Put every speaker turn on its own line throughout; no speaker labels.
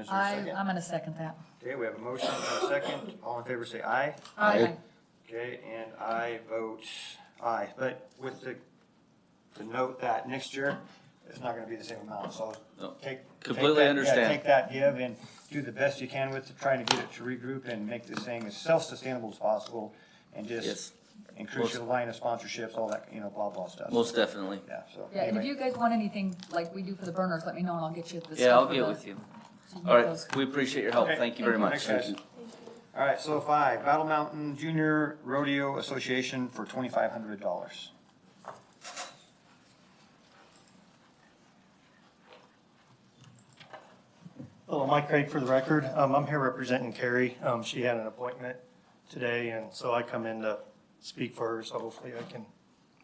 Is there a
I, um,
second?
I'm gonna second that.
Okay, we have a motion and a second. All in favor, say aye.
Aye.
Okay, and I vote aye, but with the, the note that next year, it's not gonna be the same amount, so
No,
take. take
completely
that- yeah,
understand.
Take that give and do the best you can with trying to get it to regroup and make this thing as self-sustainable as possible and
Yes.
just increase your line of sponsorships, all that, you know, blah, blah stuff.
Most definitely.
Yeah, so.
Yeah, and if
anyway.
you guys want anything like we do for the burners, let me know and I'll get you the stuff.
Yeah, I'll
for
get
the-
with you.
so can
All
get
right,
those.
we appreciate your help.
Okay.
Oh, Thank you very much.
Thanks, guys. All right, so five, Battle Mountain Junior Rodeo Association for twenty-five hundred dollars.
Hello, Mike Craig for the record. Um, I'm here representing Carrie. Um, she had an appointment today, and so I come in to speak for her, so hopefully I can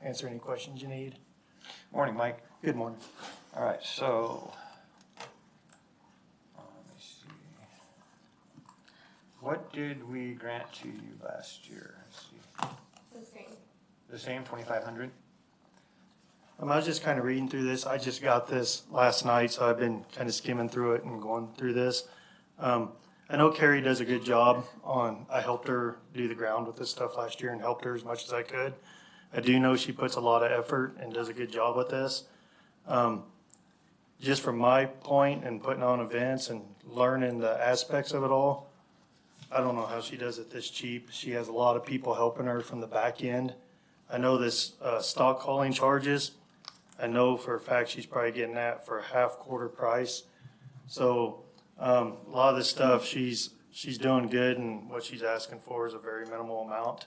answer any questions you need.
Morning, Mike.
Good morning.
All right, so. uh, let me see. What did we grant to you last year? Let's see.
The same.
The same, twenty-five hundred?
Um, I was just kind of reading through this. I just got this last night, so I've been kind of skimming through it and going through this. Um, I know Carrie does a good job on, I helped her do the ground with this stuff last year and helped her as much as I could. I do know she puts a lot of effort and does a good job with this. Um, just from my point and putting on events and learning the aspects of it all, I don't know how she does it this cheap. She has a lot of people helping her from the back end. I know this, uh, stock hauling charges, I know for a fact she's probably getting that for half quarter price. So, um, a lot of this stuff, she's, she's doing good and what she's asking for is a very minimal amount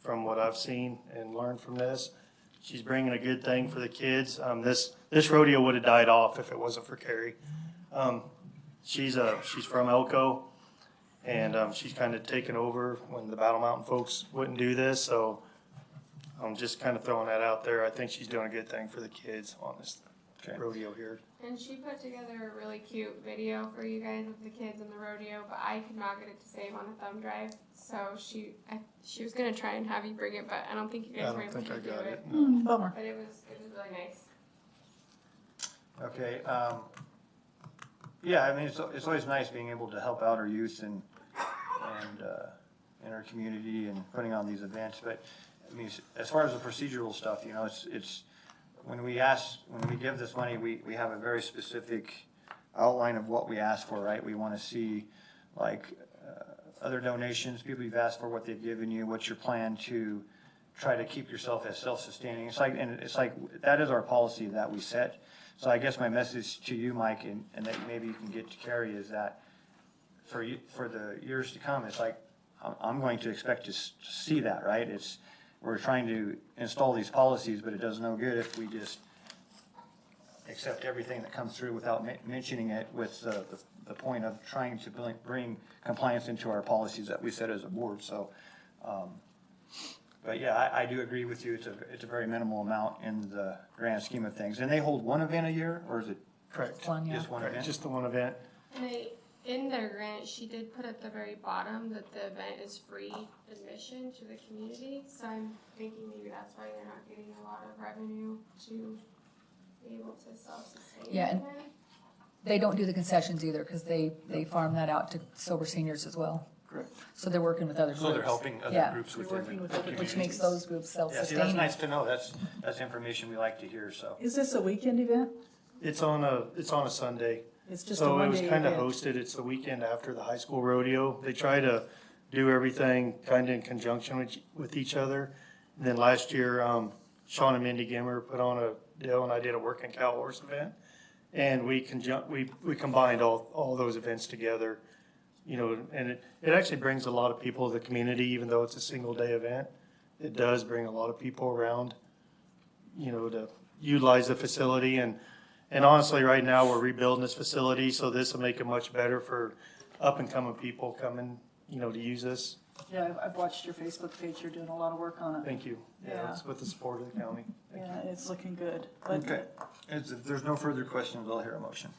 from what I've seen and learned from this. She's bringing a good thing for the kids. Um, this, this rodeo would have died off if it wasn't for Carrie. Um, she's a, she's from Elko and, um, she's kind of taken over when the Battle Mountain folks wouldn't do this, so I'm just kind of throwing that out there. I think she's doing a good thing for the kids on this
Okay.
rodeo here.
And she put together a really cute video for you guys with the kids and the rodeo, but I could not get it to save on a thumb drive. So she, I, she was gonna try and have you bring it, but I don't think you
I
guys were
don't
able
think
to
I
do
got
it.
it.
Hmm,
Mm, Bummer.
But it was, it was really nice.
Okay, um, yeah, I mean, it's, it's always nice being able to help out our youth and, and, uh, in our community and putting on these events, but, I mean, as far as the procedural stuff, you know, it's, it's, when we ask, when we give this money, we, we have a very specific outline of what we ask for, right? We wanna see, like, uh, other donations, people you've asked for, what they've given you, what's your plan to try to keep yourself as self-sustaining. It's like, and it's like, that is our policy that we set. So I guess my message to you, Mike, and, and that maybe you can get to Carrie, is that for you, for the years to come, it's like, I'm, I'm going to expect to s- to see that, right? It's, we're trying to install these policies, but it does no good if we just accept everything that comes through without men- mentioning it with uh, the, the point of trying to bring- bring compliance into our policies that we set as a board, so. um, But yeah, I, I do agree with you, it's a, it's a very minimal amount in the grand scheme of things. And they hold one event a year, or is it
Correct.
One, yeah.
just one
Correct,
event?
just the one event.
And they, in their grant, she did put at the very bottom that the event is free admission to the community. So I'm thinking maybe that's why they're not getting a lot of revenue to be able to self-sustain.
Yeah, and-
the event.
They don't do the concessions either, cause they, they farm that out to sober seniors as well.
Correct.
So they're working with other groups.
So they're helping other
Yeah.
groups
They're
within the
working with other
community.
Which makes those groups
Yeah, see, that's
self-sustaining.
nice to know, that's, that's information we like to hear, so.
Is this a weekend event?
It's on a, it's on a Sunday.
It's just a
So it was
one-day
kind of
event.
hosted, it's the weekend after the high school rodeo. They try to do everything kind of in conjunction with, with each other. And then last year, um, Sean and Mindy Gimmer put on a deal and I did a working cow horse event. And we conjun, we, we combined all, all those events together, you know, and it, it actually brings a lot of people to the community, even though it's a single day event. It does bring a lot of people around, you know, to utilize the facility and and honestly, right now, we're rebuilding this facility, so this will make it much better for up and coming people coming, you know, to use this.
Yeah, I've- I've watched your Facebook page. You're doing a lot of work on it.
Thank you.
Yeah.
Yeah, it's with the support of the county. Thank
Yeah,
you.
it's looking good. But
Okay, Is- if there's no further questions, I'll hear a motion.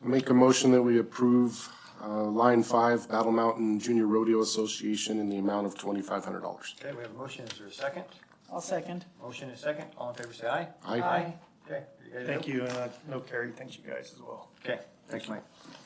Make a motion that we approve uh, line five, Battle Mountain Junior Rodeo Association in the amount of twenty-five hundred dollars.
Okay, we have a motion, is there a second?
I'll second.
Motion is second, all in favor say aye.
Aye.
Okay. guys
Thank
do.
you, and I know Carrie thanks you guys as well.
Okay, thanks, Mike.